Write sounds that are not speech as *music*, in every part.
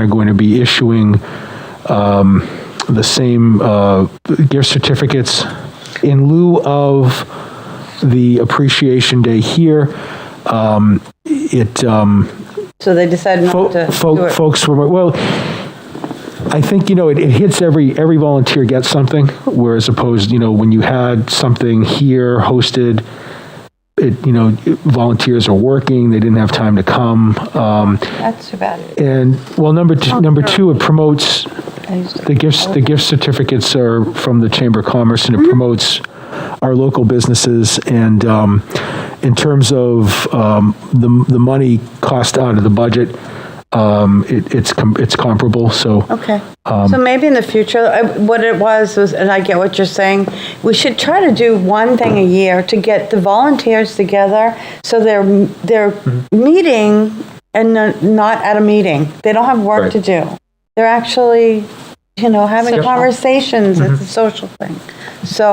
are going to be issuing um, the same uh, gift certificates in lieu of the Appreciation Day here. Um, It, um, So they decided not to Fo- do fo- it. Folks were, well, I think, you know, it it hits every, every volunteer gets something, whereas opposed, you know, when you had something here hosted, it, you know, volunteers are working, they didn't have time to come. um, That's too bad. And, well, number, Oh, two- number two, it promotes, I used to- the gifts, the gift certificates are from the Chamber of Commerce, Mm-hmm. and it promotes our local businesses. And um, in terms of um, the the money cost out of the budget, um, it, it's com- it's comparable. So Okay. So maybe in the future, I- what it was, was, and I get what you're saying, we should try to do one thing a year to get the volunteers together so they're, they're meeting and they're not at a meeting. They don't have work Right. to do. They're actually, you know, having Social. conversations. It's a social thing. So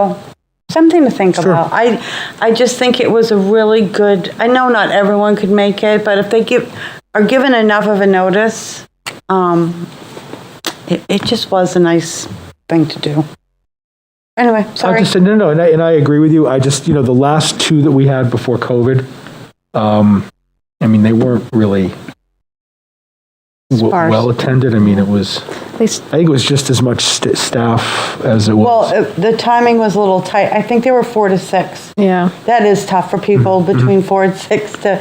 something to think about. I, I just think it was a really good, I know not everyone could make it, but if they give, are given enough of a notice, um, it, it just was a nice thing to do. Anyway, I sorry. just said no, no, and I, and I agree with you. I just you know the last two that we had before COVID, um, I mean they weren't really. w- Sparse. Well attended. I mean, it was. least- I think it was just as much st- staff as it was. Well, uh, the timing was a little tight. I think they were four to six. Yeah. That is tough for people Mm-hmm. between four and six to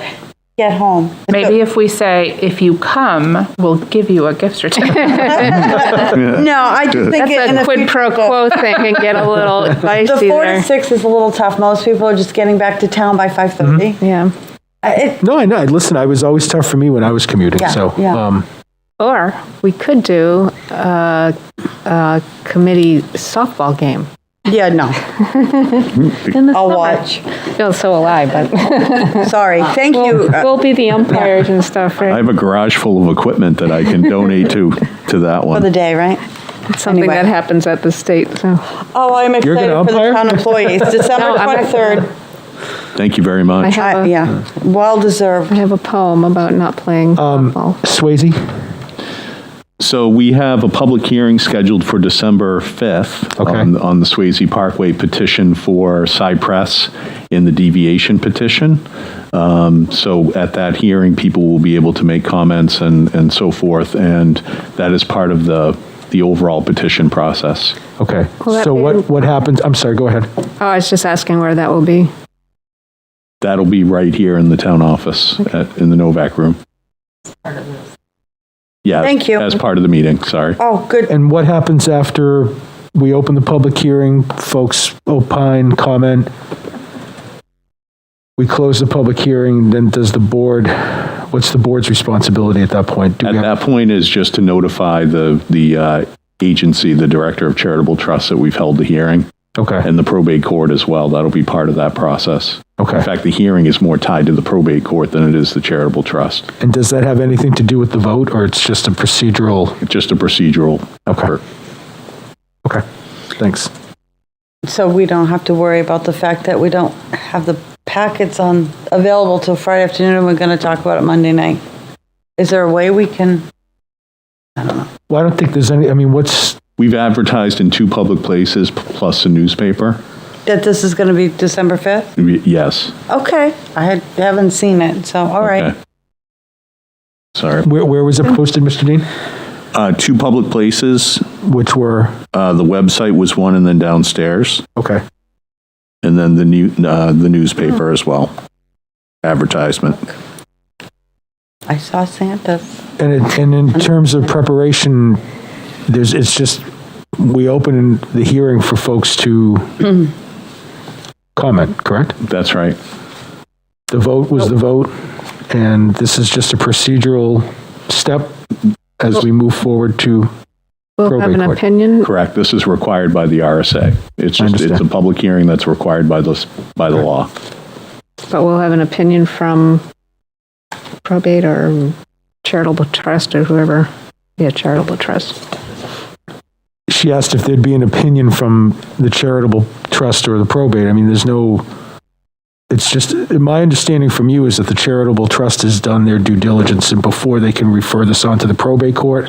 get home. *laughs* *laughs* Maybe if we say, if you come, we'll give you a gift certificate. No, I just think That's it- in a the quid future, pro the- quo thing and get a *laughs* little The dicey four to there. six is a little tough. Most people are just getting back to town by Mm-hmm. 5:30. Yeah. Uh, it- No, I know. Listen, I was always tough for me when I was commuting. Yeah, so, yeah. Um, Or we could do a, a committee softball game Yeah, no, in the I'll summer. watch. No, so will I, but Sorry, thank you. Uh, we'll be the umpires and stuff, I right? have a garage full of equipment that I can donate to, to that For the one. day, right? It's something anyway. that happens at the state, so. Oh, I'm gonna excited for the umpire? town employees. December *laughs* No, I'm not- 23rd. Thank you very I much. I- have a, Yeah, well deserved. I have a poem about not playing Um, softball. Swayze. So we have a public hearing scheduled for December 5th Okay. on, on the Swayze Parkway petition for Cypress in the deviation petition. Um, So at that hearing, people will be able to make comments and, and so forth, and that is part of the, the overall petition process. Okay. Will that so be- what what happens? I'm sorry. Go ahead. Oh, I was just asking where that will be. That'll be right here in the town office, at- in the Novak room. Yeah. Thank you. As part of the meeting, sorry. Oh, good. And what happens after we open the public hearing? Folks opine, comment. We close the public hearing. Then does the board? What's the board's responsibility at that point? Do At we have, that point is just to notify the, the uh, agency, the Director of Charitable Trusts, that we've held the hearing, okay. and the probate court as well. That'll be part of that process. Okay. In fact, the hearing is more tied to the probate court than it is the charitable trust. And does that have anything to do with the vote, or it's just a procedural? It's just a procedural effort. Okay. Thanks. So we don't have to worry about the fact that we don't have the packets on, available till Friday afternoon, and we're going to talk about it Monday night. Is there a way we can, Well, I don't think there's any. I mean, what's We've advertised in two public places, p- plus a newspaper. that this is going to be December 5th? Y- Yes. Okay, I had- haven't seen it, so, all right. Okay. Sorry. where where was it posted, Mr. Dean? Uh, Two public places. Which were Uh, The website was one, and then downstairs. okay. And then the new, uh, the newspaper as well. Advertisement. I saw Santa's. And it, and in terms of preparation, there's, it's just, we open the hearing for folks to comment, correct? That's right. The vote was the vote, and this is just a procedural step as we move forward to, We'll have Probate an court. opinion. Correct. This is required by the RSA. It's just, it's a understand. public hearing that's required by the, by the law. But we'll have an opinion from probate or charitable trust or whoever. Yeah, charitable trust. she asked if there'd be an opinion from the charitable trust or the probate. I mean, there's no, it's just, my understanding from you is that the charitable trust has done their due diligence and before they can refer this on to the probate court,